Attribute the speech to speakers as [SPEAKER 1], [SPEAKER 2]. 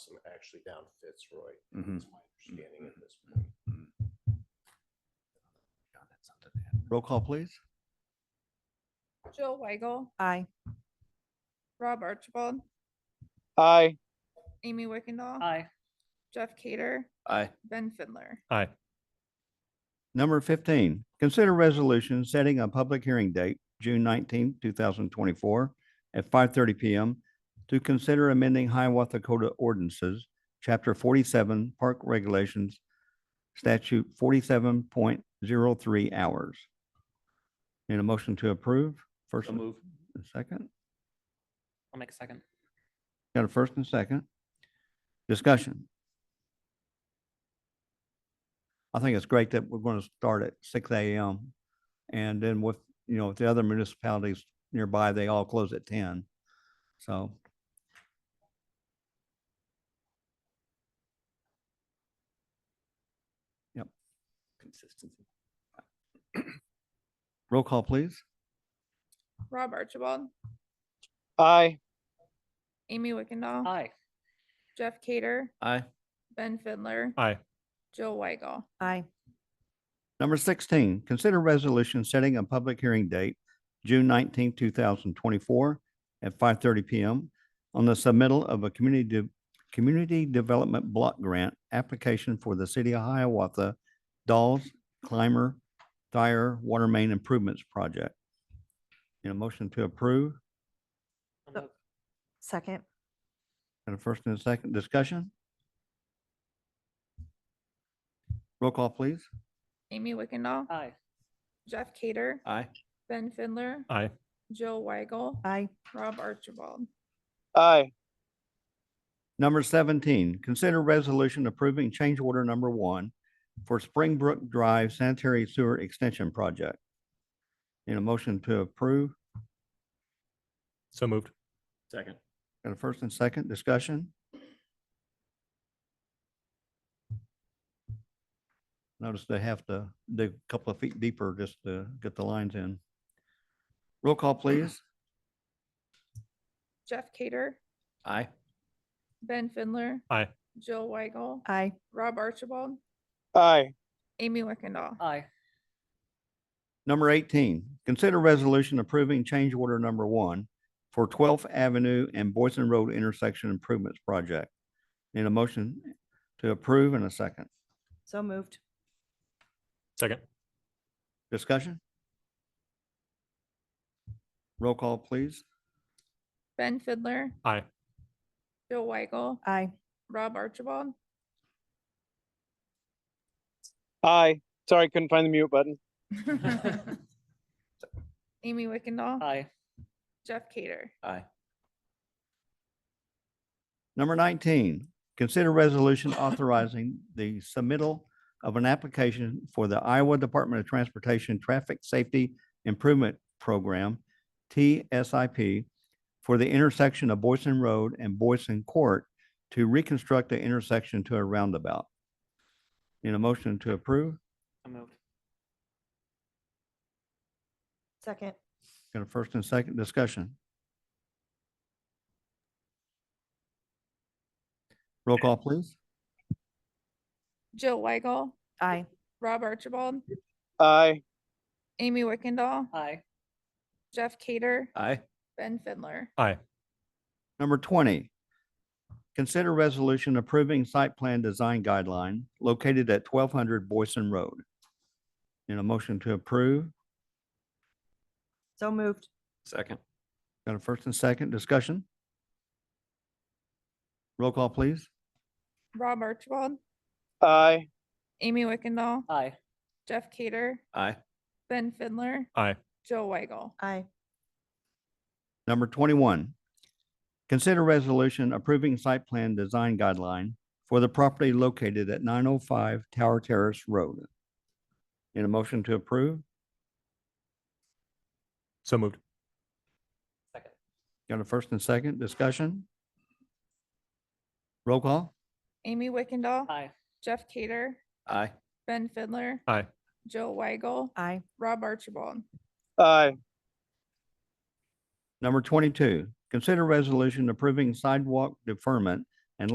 [SPEAKER 1] and actually down Fitzroy,
[SPEAKER 2] Mhm.
[SPEAKER 1] is my understanding at this point.
[SPEAKER 2] Roll call, please.
[SPEAKER 3] Jill Weigel,
[SPEAKER 4] Aye.
[SPEAKER 3] Rob Archibald,
[SPEAKER 5] aye.
[SPEAKER 3] Amy Wickendall.
[SPEAKER 6] Aye.
[SPEAKER 3] Jeff Cader,
[SPEAKER 7] Aye.
[SPEAKER 3] Ben Fidler.
[SPEAKER 8] Aye.
[SPEAKER 2] Number fifteen, consider resolution setting a public hearing date, June nineteenth, two thousand twenty-four at five thirty PM to consider amending Hiawatha Code of Ordinances, Chapter forty-seven, Park Regulations, Statute forty-seven point zero three hours. Need a motion to approve? First
[SPEAKER 7] So
[SPEAKER 2] and
[SPEAKER 7] move.
[SPEAKER 2] a second?
[SPEAKER 6] I'll make a second.
[SPEAKER 2] Got a first and a second? Discussion. I think it's great that we're going to start at six AM. And then with, you know, with the other municipalities nearby, they all close at ten. So. Yep. Consistency. Roll call, please.
[SPEAKER 3] Rob Archibald,
[SPEAKER 5] Aye.
[SPEAKER 3] Amy Wickendall.
[SPEAKER 6] Aye.
[SPEAKER 3] Jeff Cader,
[SPEAKER 7] Aye.
[SPEAKER 3] Ben Fidler,
[SPEAKER 8] Aye.
[SPEAKER 3] Jill Weigel.
[SPEAKER 4] Aye.
[SPEAKER 2] Number sixteen, consider resolution setting a public hearing date, June nineteenth, two thousand twenty-four at five thirty PM on the submittal of a community, de- community development block grant application for the city of Hiawatha Dolls Climber Thayer Water Main Improvements Project. Need a motion to approve?
[SPEAKER 6] I'll
[SPEAKER 4] So-
[SPEAKER 6] move.
[SPEAKER 4] Second.
[SPEAKER 2] And a first and a second discussion? Roll call, please.
[SPEAKER 3] Amy Wickendall,
[SPEAKER 6] Aye.
[SPEAKER 3] Jeff Cader,
[SPEAKER 7] Aye.
[SPEAKER 3] Ben Fidler,
[SPEAKER 8] Aye.
[SPEAKER 3] Jill Weigel,
[SPEAKER 4] Aye.
[SPEAKER 3] Rob Archibald.
[SPEAKER 5] Aye.
[SPEAKER 2] Number seventeen, consider resolution approving change order number one for Springbrook Drive Sanitary Sewer Extension Project. In a motion to approve,
[SPEAKER 8] So moved.
[SPEAKER 7] Second.
[SPEAKER 2] got a first and second discussion? Notice they have to dig a couple of feet deeper just to get the lines in. Roll call, please.
[SPEAKER 3] Jeff Cader,
[SPEAKER 7] Aye.
[SPEAKER 3] Ben Fidler.
[SPEAKER 8] Aye.
[SPEAKER 3] Jill Weigel,
[SPEAKER 4] Aye.
[SPEAKER 3] Rob Archibald,
[SPEAKER 5] Aye.
[SPEAKER 3] Amy Wickendall.
[SPEAKER 6] Aye.
[SPEAKER 2] Number eighteen, consider resolution approving change order number one for Twelfth Avenue and Boyson Road Intersection Improvements Project. Need a motion to approve in a second.
[SPEAKER 4] So moved.
[SPEAKER 8] Second.
[SPEAKER 2] Discussion? Roll call, please.
[SPEAKER 3] Ben Fidler,
[SPEAKER 8] Aye.
[SPEAKER 3] Jill Weigel,
[SPEAKER 4] Aye.
[SPEAKER 3] Rob Archibald,
[SPEAKER 5] Aye. Sorry, couldn't find the mute button.
[SPEAKER 3] Amy Wickendall,
[SPEAKER 6] Aye.
[SPEAKER 3] Jeff Cader.
[SPEAKER 7] Aye.
[SPEAKER 2] Number nineteen, consider resolution authorizing the submittal of an application for the Iowa Department of Transportation Traffic Safety Improvement Program, TSIP, for the intersection of Boyson Road and Boyson Court to reconstruct the intersection to a roundabout. In a motion to approve,
[SPEAKER 6] So moved.
[SPEAKER 4] Second.
[SPEAKER 2] got a first and second discussion. Roll call, please.
[SPEAKER 3] Jill Weigel,
[SPEAKER 4] Aye.
[SPEAKER 3] Rob Archibald,
[SPEAKER 5] Aye.
[SPEAKER 3] Amy Wickendall,
[SPEAKER 6] Aye.
[SPEAKER 3] Jeff Cader,
[SPEAKER 7] Aye.
[SPEAKER 3] Ben Fidler.
[SPEAKER 8] Aye.
[SPEAKER 2] Number twenty, consider resolution approving site plan design guideline located at twelve hundred Boyson Road. In a motion to approve,
[SPEAKER 4] So moved.
[SPEAKER 7] Second.
[SPEAKER 2] got a first and second discussion? Roll call, please.
[SPEAKER 3] Rob Archibald,
[SPEAKER 5] Aye.
[SPEAKER 3] Amy Wickendall,
[SPEAKER 6] Aye.
[SPEAKER 3] Jeff Cader,
[SPEAKER 7] Aye.
[SPEAKER 3] Ben Fidler,
[SPEAKER 8] Aye.
[SPEAKER 3] Jill Weigel.
[SPEAKER 4] Aye.
[SPEAKER 2] Number twenty-one, consider resolution approving site plan design guideline for the property located at nine oh five Tower Terrace Road. In a motion to approve,
[SPEAKER 8] So moved.
[SPEAKER 6] Second.
[SPEAKER 2] got a first and second discussion? Roll call?
[SPEAKER 3] Amy Wickendall,
[SPEAKER 6] Aye.
[SPEAKER 3] Jeff Cader,
[SPEAKER 7] Aye.
[SPEAKER 3] Ben Fidler,
[SPEAKER 8] Aye.
[SPEAKER 3] Jill Weigel,
[SPEAKER 4] Aye.
[SPEAKER 3] Rob Archibald,
[SPEAKER 5] Aye.
[SPEAKER 2] Number twenty-two, consider resolution approving sidewalk deferment